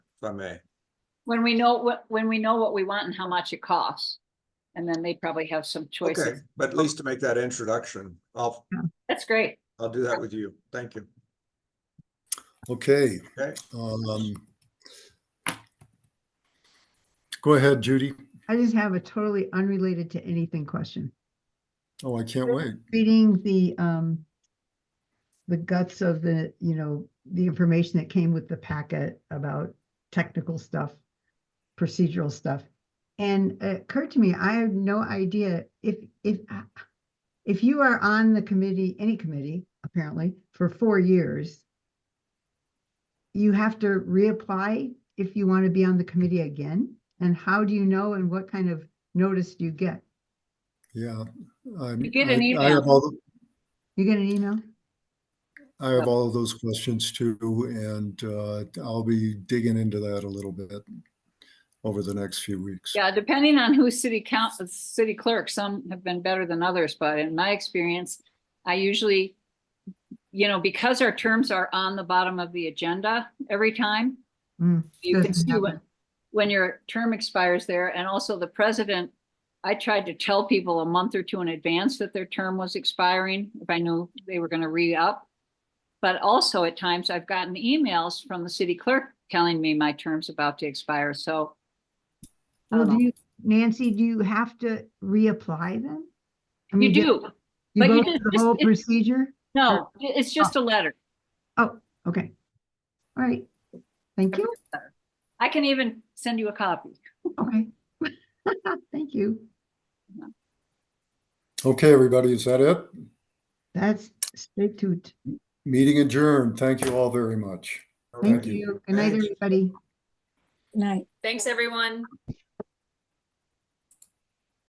if I may. When we know what, when we know what we want and how much it costs. And then they probably have some Okay, choices. but at least to make that introduction, I'll, That's great. I'll do that with you. Thank you. Okay. Okay. um, Go ahead, Judy. I just have a totally unrelated to anything question. Oh, I can't wait. Reading the, um, the guts of the, you know, the information that came with the packet about technical stuff, procedural stuff. And it occurred to me, I have no idea if, if, if you are on the committee, any committee, apparently, for four years, you have to reapply if you want to be on the committee again? And how do you know and what kind of notice do you get? Yeah. I'm- You get an I- I have email. all the- You get an email? I have all of those questions too, and uh, I'll be digging into that a little bit over the next few weeks. Yeah, depending on who's city council, city clerk, some have been better than others, but in my experience, I usually, you know, because our terms are on the bottom of the agenda every time. Mm, You can doesn't see when, happen. when your term expires there and also the president, I tried to tell people a month or two in advance that their term was expiring if I knew they were going to re-up. But also at times I've gotten emails from the city clerk telling me my term's about to expire, so. um, I Well, don't know. do you, Nancy, do you have to reapply then? I mean, You do, You but you do- go through the just- whole it- procedure? no, it- it's just a letter. Oh, okay. All right. Thank you. I can even send you a copy. Okay. Thank you. Okay, everybody, is that it? That's straight to, it. Meeting adjourned. Thank you all very much. All thank right. you. Good night, Thanks. everybody. Night. Thanks, everyone.